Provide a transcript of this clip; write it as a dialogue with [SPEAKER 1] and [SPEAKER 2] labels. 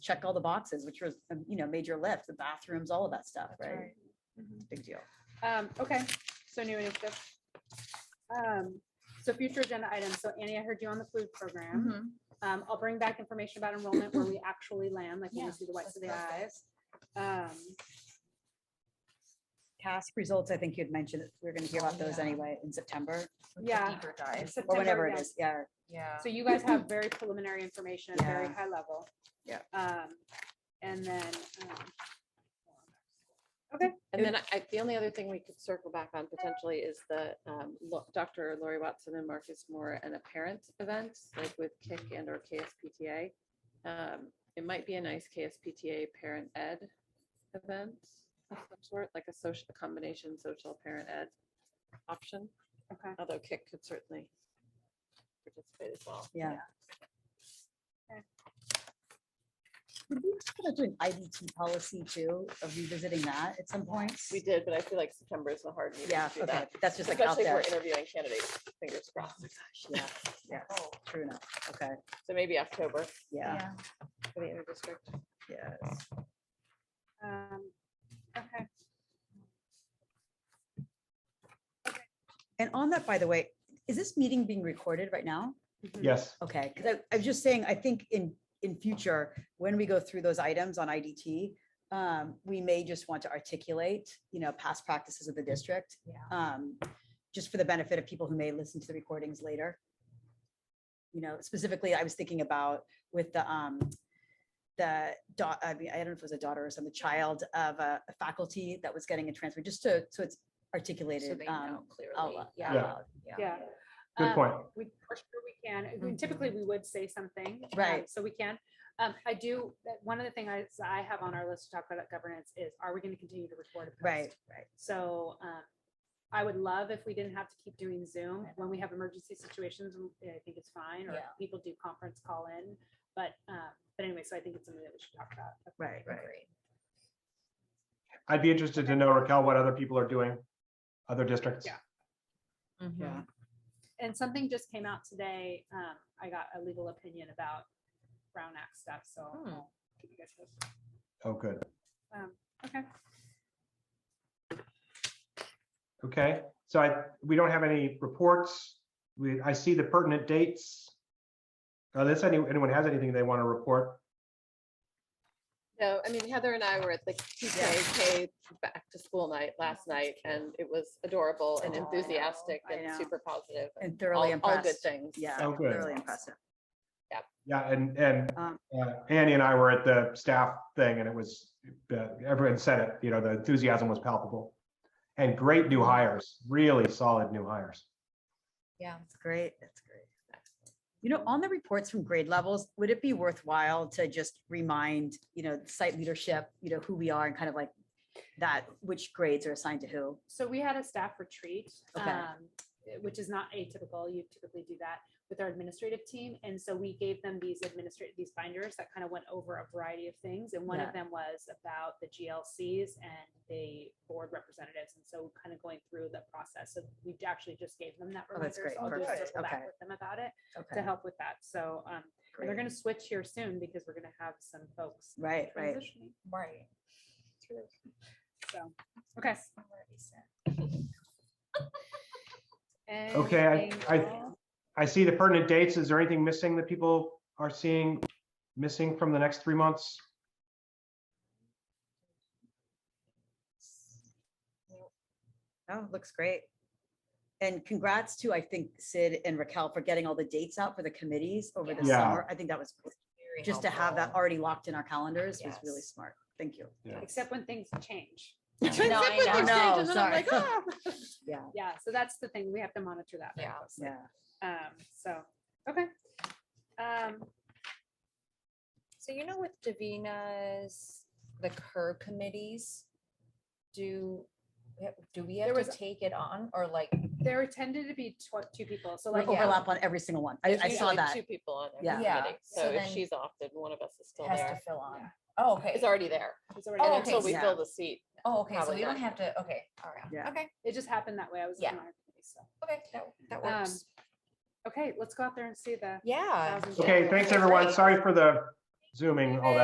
[SPEAKER 1] checked all the boxes, which was, a, you know, major lift, the bathrooms, all of that stuff,
[SPEAKER 2] That's
[SPEAKER 1] right? Big deal.
[SPEAKER 2] Um, okay, so new initiative. Um, so future agenda items. So Annie, I heard you on the food
[SPEAKER 3] Mm-hmm.
[SPEAKER 1] Mm-hmm.
[SPEAKER 2] program. Um, I'll bring back information about enrollment where we actually land, like when
[SPEAKER 3] Yeah,
[SPEAKER 2] we see the whites of the eyes.
[SPEAKER 3] that's
[SPEAKER 2] Um,
[SPEAKER 1] Task results, I think you'd mentioned, that we we're gonna hear about those
[SPEAKER 3] Yeah.
[SPEAKER 1] anyway in September
[SPEAKER 3] With the
[SPEAKER 2] Yeah.
[SPEAKER 3] Deeper
[SPEAKER 2] in
[SPEAKER 3] dive,
[SPEAKER 1] or
[SPEAKER 2] September,
[SPEAKER 1] whenever it
[SPEAKER 2] yes.
[SPEAKER 1] is, yeah.
[SPEAKER 3] yeah.
[SPEAKER 2] So you guys have very preliminary information at very
[SPEAKER 1] Yeah.
[SPEAKER 2] high level.
[SPEAKER 1] Yeah.
[SPEAKER 2] Um, and then, um,
[SPEAKER 4] And then I, the only other thing we could circle back on potentially is the um, Lo- Dr. Lori Watson and Marcus Moore and a parent event, like with KIC and or KSPTA. Um, It might be a nice KSPTA parent ed event of some sort, like a social, a combination social parent ed option,
[SPEAKER 2] okay.
[SPEAKER 4] although KIC could certainly participate as well.
[SPEAKER 1] Yeah.
[SPEAKER 2] Okay.
[SPEAKER 1] Did we kind of do an IDT policy too, of revisiting that at some point?
[SPEAKER 4] We did, but I feel like September is the hard meeting
[SPEAKER 1] Yeah,
[SPEAKER 4] to do
[SPEAKER 1] okay,
[SPEAKER 4] that.
[SPEAKER 1] that's just like out
[SPEAKER 4] Especially if
[SPEAKER 1] there. Oh
[SPEAKER 4] we're interviewing candidates, fingers crossed.
[SPEAKER 1] Yeah, yeah, true enough. Okay,
[SPEAKER 4] So maybe October
[SPEAKER 1] yeah,
[SPEAKER 4] for the interdistrict.
[SPEAKER 1] yeah.
[SPEAKER 2] Um, okay.
[SPEAKER 1] And on that, by the way, is this meeting being recorded right now?
[SPEAKER 2] Mhm.
[SPEAKER 5] Yes,
[SPEAKER 1] Okay, because I, I was just saying, I think in, in future, when we go through those items on IDT, um, we may just want to articulate, you know, past practices of the district.
[SPEAKER 3] Yeah.
[SPEAKER 1] Um, just for the benefit of people who may listen to the recordings later. You know, specifically, I was thinking about with the, um, the daughter, I mean, I don't know if it was a daughter or some, the child of a a faculty that was getting a transfer, just to, so it's
[SPEAKER 3] So
[SPEAKER 1] articulated,
[SPEAKER 3] they
[SPEAKER 1] um,
[SPEAKER 3] know
[SPEAKER 1] out
[SPEAKER 3] clearly.
[SPEAKER 1] loud,
[SPEAKER 3] Yeah.
[SPEAKER 1] out
[SPEAKER 5] Yeah.
[SPEAKER 1] loud.
[SPEAKER 2] Yeah.
[SPEAKER 5] good
[SPEAKER 2] Um,
[SPEAKER 5] point.
[SPEAKER 2] We, for sure we can. I mean, Typically, we would say something. um,
[SPEAKER 1] Mm-hmm. Right.
[SPEAKER 2] So we can. Um, I do, that- one of the things I, so I have on our list to talk about governance is, are we going to continue to record? and post?
[SPEAKER 1] Right, right.
[SPEAKER 2] So, um, I would love if we didn't have to keep doing Zoom. When we have emergency situations, I think it's fine, or
[SPEAKER 3] Yeah.
[SPEAKER 2] people do conference call in. But, uh, but anyway, so I think it's something that we should talk about.
[SPEAKER 1] Right, right.
[SPEAKER 3] Great.
[SPEAKER 5] I'd be interested to know, Raquel, what other people are doing, other districts.
[SPEAKER 2] Yeah.
[SPEAKER 1] Mm-hmm.
[SPEAKER 3] Mhm.
[SPEAKER 2] And something just came out today. Um, I got a legal opinion about Brown Act stuff, so.
[SPEAKER 1] Oh.
[SPEAKER 3] Hmm.
[SPEAKER 2] I'll keep you guys posted.
[SPEAKER 5] Oh, good.
[SPEAKER 2] Um, Okay.
[SPEAKER 5] Okay, so I, we don't have any reports. We, I see the pertinent dates. Unless any, anyone has anything they want to report.
[SPEAKER 4] No, I mean Heather and I were at the TKK back to school night last night and it was adorable and
[SPEAKER 1] Oh, I know,
[SPEAKER 4] enthusiastic
[SPEAKER 1] I
[SPEAKER 4] and
[SPEAKER 1] know.
[SPEAKER 4] super positive.
[SPEAKER 1] And
[SPEAKER 4] all-
[SPEAKER 1] thoroughly
[SPEAKER 4] All good
[SPEAKER 1] impressed.
[SPEAKER 4] things.
[SPEAKER 1] Yeah,
[SPEAKER 4] so.
[SPEAKER 5] Oh, good.
[SPEAKER 1] thoroughly impressive.
[SPEAKER 5] Yeah, and, and
[SPEAKER 1] Um,
[SPEAKER 5] uh, Annie and I were at the staff thing and it was, uh, everyone said it, you know, the enthusiasm was palpable. And great new hires, really solid new hires.
[SPEAKER 3] Yeah.
[SPEAKER 1] That's great. That's great. You know, on the reports from grade levels, would it be worthwhile to just remind, you know, site leadership, you know, who we are and kind of like that, which grades are assigned to who?
[SPEAKER 2] So we had a staff retreat,
[SPEAKER 1] Okay.
[SPEAKER 2] um, which is not atypical. You typically do that with our administrative team. And so we gave them these administrative, these binders that kind of went over a variety of things. And one
[SPEAKER 1] Yeah.
[SPEAKER 2] of them was about the GLCs and the board representatives. And so kind of going through the process. So we actually just gave them that
[SPEAKER 1] Oh, that's
[SPEAKER 2] reminder.
[SPEAKER 1] great.
[SPEAKER 2] So I'll just
[SPEAKER 1] Perfect.
[SPEAKER 2] circle back
[SPEAKER 1] Okay.
[SPEAKER 2] with them about it to
[SPEAKER 1] Okay.
[SPEAKER 2] help with that. So, um, and they're
[SPEAKER 1] great.
[SPEAKER 2] going to switch here soon because we're going to have some folks
[SPEAKER 1] Right, right.
[SPEAKER 2] transitioning.
[SPEAKER 3] Right. True.
[SPEAKER 2] So, okay.
[SPEAKER 3] Already said.
[SPEAKER 5] Okay, I-
[SPEAKER 2] Anything
[SPEAKER 5] I-
[SPEAKER 2] else?
[SPEAKER 5] I see the pertinent dates. Is there anything missing that people are seeing, missing from the next three months?
[SPEAKER 1] Oh, looks great. And congrats to, I think, Sid and Raquel for getting all the dates out for the committees over the
[SPEAKER 3] Yeah.
[SPEAKER 5] Yeah.
[SPEAKER 1] summer. I think that was,
[SPEAKER 3] Very
[SPEAKER 1] just to have that
[SPEAKER 3] helpful.
[SPEAKER 1] already locked in our calendars was really
[SPEAKER 3] Yes.
[SPEAKER 1] smart. Thank you.
[SPEAKER 2] Except when things change.
[SPEAKER 1] I
[SPEAKER 4] Except when
[SPEAKER 1] know.
[SPEAKER 4] things
[SPEAKER 1] No,
[SPEAKER 4] change, and then I'm
[SPEAKER 1] sorry.
[SPEAKER 4] like, "Ah."
[SPEAKER 1] Yeah,
[SPEAKER 2] Yeah, so that's the thing. We have to monitor that. very
[SPEAKER 3] Yeah.
[SPEAKER 2] closely.
[SPEAKER 1] yeah.
[SPEAKER 2] Um, so, okay. Um,
[SPEAKER 3] So you know with Davina's, the curb committees, do, eh, do we have
[SPEAKER 2] There
[SPEAKER 3] to
[SPEAKER 2] was-
[SPEAKER 3] take it on or like?
[SPEAKER 2] there tended to be tw- two people, so like.
[SPEAKER 3] Yeah.
[SPEAKER 1] Overlap on every single one. I,
[SPEAKER 4] There's
[SPEAKER 1] I saw
[SPEAKER 4] usually
[SPEAKER 1] that.
[SPEAKER 4] Two people on
[SPEAKER 1] Yeah.
[SPEAKER 4] every
[SPEAKER 3] Yeah,
[SPEAKER 4] committee.
[SPEAKER 3] so
[SPEAKER 4] So if
[SPEAKER 3] then-
[SPEAKER 4] she's off, then one of us is still
[SPEAKER 3] Has to
[SPEAKER 4] there.
[SPEAKER 3] fill on? Oh, okay.
[SPEAKER 4] It's already there.
[SPEAKER 2] it's already
[SPEAKER 3] Oh,
[SPEAKER 4] And
[SPEAKER 2] there.
[SPEAKER 3] okay,
[SPEAKER 4] until we
[SPEAKER 1] so-
[SPEAKER 4] fill the seat.
[SPEAKER 3] Oh, okay, so
[SPEAKER 4] probably
[SPEAKER 3] we don't
[SPEAKER 4] not.
[SPEAKER 3] have to, okay, all right,
[SPEAKER 1] Yeah.
[SPEAKER 3] okay,
[SPEAKER 2] It just happened that way. I was.
[SPEAKER 3] Yeah.
[SPEAKER 2] on our committee, so.
[SPEAKER 3] okay, that, that
[SPEAKER 2] Um,
[SPEAKER 3] works.
[SPEAKER 2] Okay, let's go out there and see the.
[SPEAKER 3] Yeah.
[SPEAKER 2] thousand
[SPEAKER 5] Okay,
[SPEAKER 2] people.
[SPEAKER 5] thanks, everyone.
[SPEAKER 3] Great.
[SPEAKER 5] Sorry for the zooming, all that.